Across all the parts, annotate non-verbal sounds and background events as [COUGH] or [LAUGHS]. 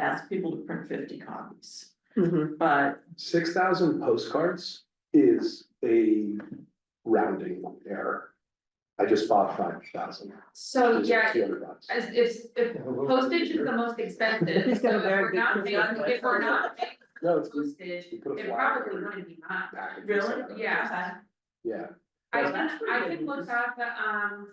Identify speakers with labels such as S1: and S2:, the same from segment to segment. S1: ask people to print fifty copies,
S2: Mm-hmm.
S1: but
S3: Six thousand postcards is a rounding error. I just bought five thousand.
S4: So, yeah, as if if postage is the
S2: [LAUGHS]
S4: most expensive,
S2: He's got
S4: so
S2: a
S4: if we're
S2: very good
S4: not paying,
S2: Christmas
S4: if we're not paying
S3: No, it's.
S4: postage,
S3: You put a
S4: it
S3: flyer
S4: probably
S3: in.
S4: wouldn't be much.
S3: back in
S1: really,
S3: December.
S4: Yeah.
S3: uh, Yeah,
S4: I
S1: Well,
S4: can,
S1: that's pretty
S4: I can
S1: good
S4: look
S1: news.
S4: up, um.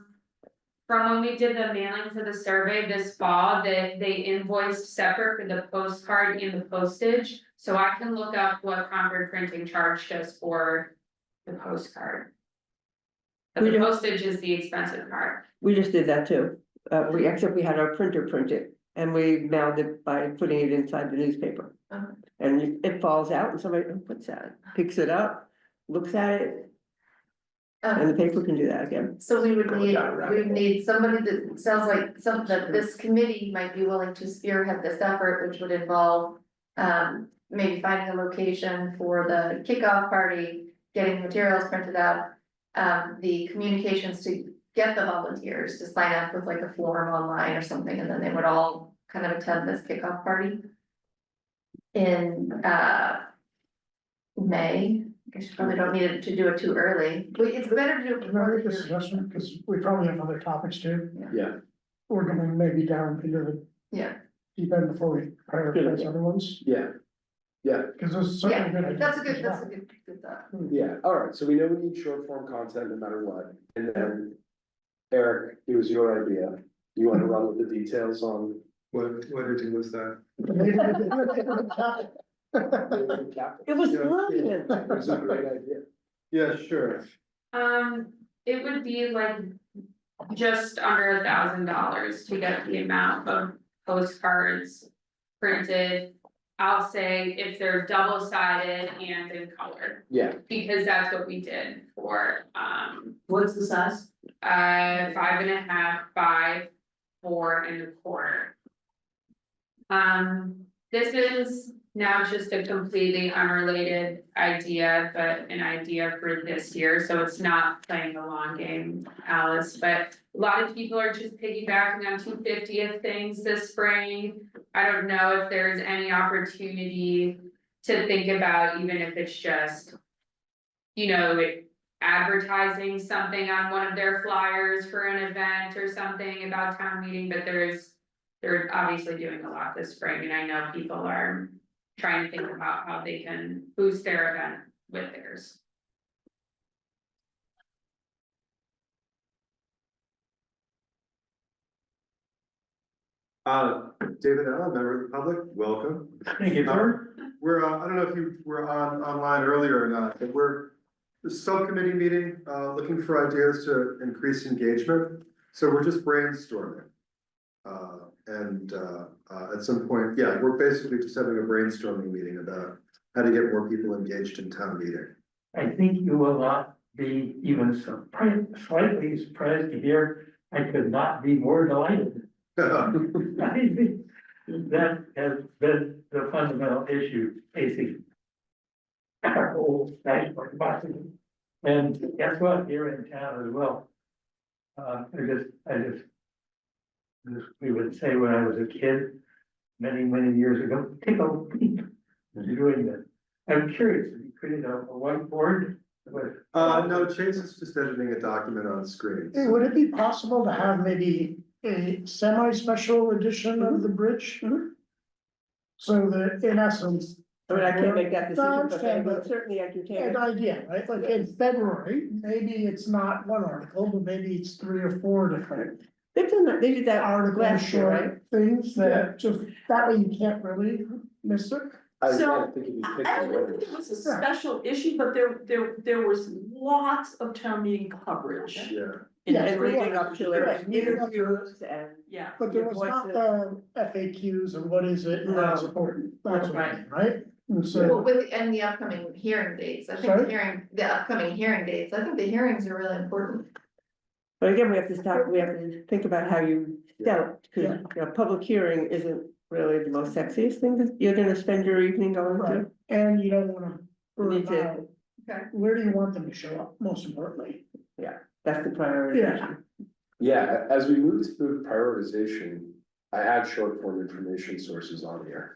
S4: From when we did the mailing for the survey this fall, that they invoiced separate for the postcard and the postage. So I can look up what Concord Printing charged us for the postcard. But
S2: We
S4: the
S2: don't-
S4: postage is the expensive part.
S2: We just did that too. Uh, we, except we had our printer print it and we mailed it by putting it inside the newspaper.
S4: Uh-huh.
S2: And it- it falls out and somebody, oh, what's that? Picks it up, looks at it.
S5: Uh-huh.
S2: And the paper can do that again.
S6: So we would
S3: Go
S6: need,
S3: down a rabbit
S6: we would
S3: hole.
S6: need somebody that sounds like some, that this committee might be willing to spearhead this effort, which would involve. Um, maybe finding a location for the kickoff party, getting materials printed up. Um, the communications to get the volunteers to sign up with like a form online or something, and then they would all kind of attend this kickoff party. In uh. May, I guess you probably don't need to do it too early, We- it's better to do it
S5: Can I
S6: before
S5: make
S6: the
S5: a
S6: year.
S5: suggestion, because we probably have other topics too,
S3: yeah,
S5: we're gonna maybe down into the
S6: Yeah,
S5: deep end before we prioritize other ones,
S3: yeah,
S5: because this is certainly a good idea.
S6: that's a good,
S5: [LAUGHS]
S6: that's a good, good thought.
S3: yeah, alright, so we know we need short form content no matter what, and then. Eric, it was your idea, you wanna run with the details on.
S7: What, what did you was that?
S2: [LAUGHS] It was
S7: Yeah.
S2: brilliant.
S3: It was a great idea.
S7: Yeah, sure.
S4: Um, it would be like just under a thousand dollars to get the amount of postcards printed. I'll say if they're double sided and in color,
S3: Yeah,
S4: because that's what we did for um
S1: what's the size?
S4: uh five and a half by four and a quarter. Um, this is now just a completely unrelated idea, but an idea for this year, so it's not playing the long game, Alice, but. A lot of people are just piggybacking on two fiftieth things this spring. I don't know if there's any opportunity to think about, even if it's just. You know, it advertising something on one of their flyers for an event or something about town meeting, but there's. They're obviously doing a lot this spring and I know people are trying to think about how they can boost their event with theirs.
S7: Uh, David Allen, member of the public, welcome.
S5: Thank you, Bert.
S7: We're, uh, I don't know if you were on, online earlier or not, but we're, the subcommittee meeting, uh, looking for ideas to increase engagement. So we're just brainstorming. Uh, and, uh, uh, at some point, yeah, we're basically just having a brainstorming meeting about how to get more people engaged in town meeting. [LAUGHS]
S8: I think you will not be even surprised, slightly surprised to hear, I could not be more delighted.
S7: Uh,
S8: I think That has been the fundamental issue facing our whole national democracy. And guess what, here in town as well. Uh, I just, I just, this- we would say when I was a kid, many, many years ago, take a peek at doing this. I'm curious, have you created a a whiteboard with?
S7: Uh, no, Chase is just editing a document on screen.
S5: Hey, would it be possible to have maybe a semi-special edition of the bridge?
S2: Mhm.
S5: So that in essence,
S2: I mean, I can't make that
S5: No, I
S2: decision, but I
S5: understand,
S2: would
S5: but-
S2: certainly entertain
S5: an
S2: it.
S5: idea, right, like in February, maybe it's not one article, but maybe it's three or four different.
S2: They've done that, they did that
S5: article
S2: last year, right?
S5: short things that just, that way you can't really miss it.
S3: I was
S1: So,
S3: kinda thinking you picked
S1: I don't
S3: the
S1: know
S3: word.
S1: if it was a special issue, but there, there, there was lots of town meeting coverage.
S7: Yeah.
S2: And
S5: Yeah,
S2: everything up to
S5: right,
S2: it,
S5: leading up to it.
S2: interviews and.
S1: Yeah,
S5: But there
S2: Your
S5: was not uh,
S2: voices.
S5: the FAQs and what is it and that's
S2: No.
S5: important, that's what I
S1: Right.
S5: mean, right? And
S6: Well,
S5: so,
S6: with, and the upcoming hearing dates, I think
S5: Sorry?
S6: hearing, the upcoming hearing dates, I think the hearings are really important.
S2: But again, we have to stop, we have to think about how you sell it, because,
S5: Yeah.
S2: you know, public hearing isn't really the most sexiest thing that you're gonna spend your evening going
S5: Right.
S2: to.
S5: and you don't wanna burn
S2: Need to-
S5: out.
S6: Okay.
S5: Where do you want them to show up, most importantly?
S2: That's the priority.
S5: Yeah.
S3: Yeah, as we move to prioritization, I had short form information sources on here.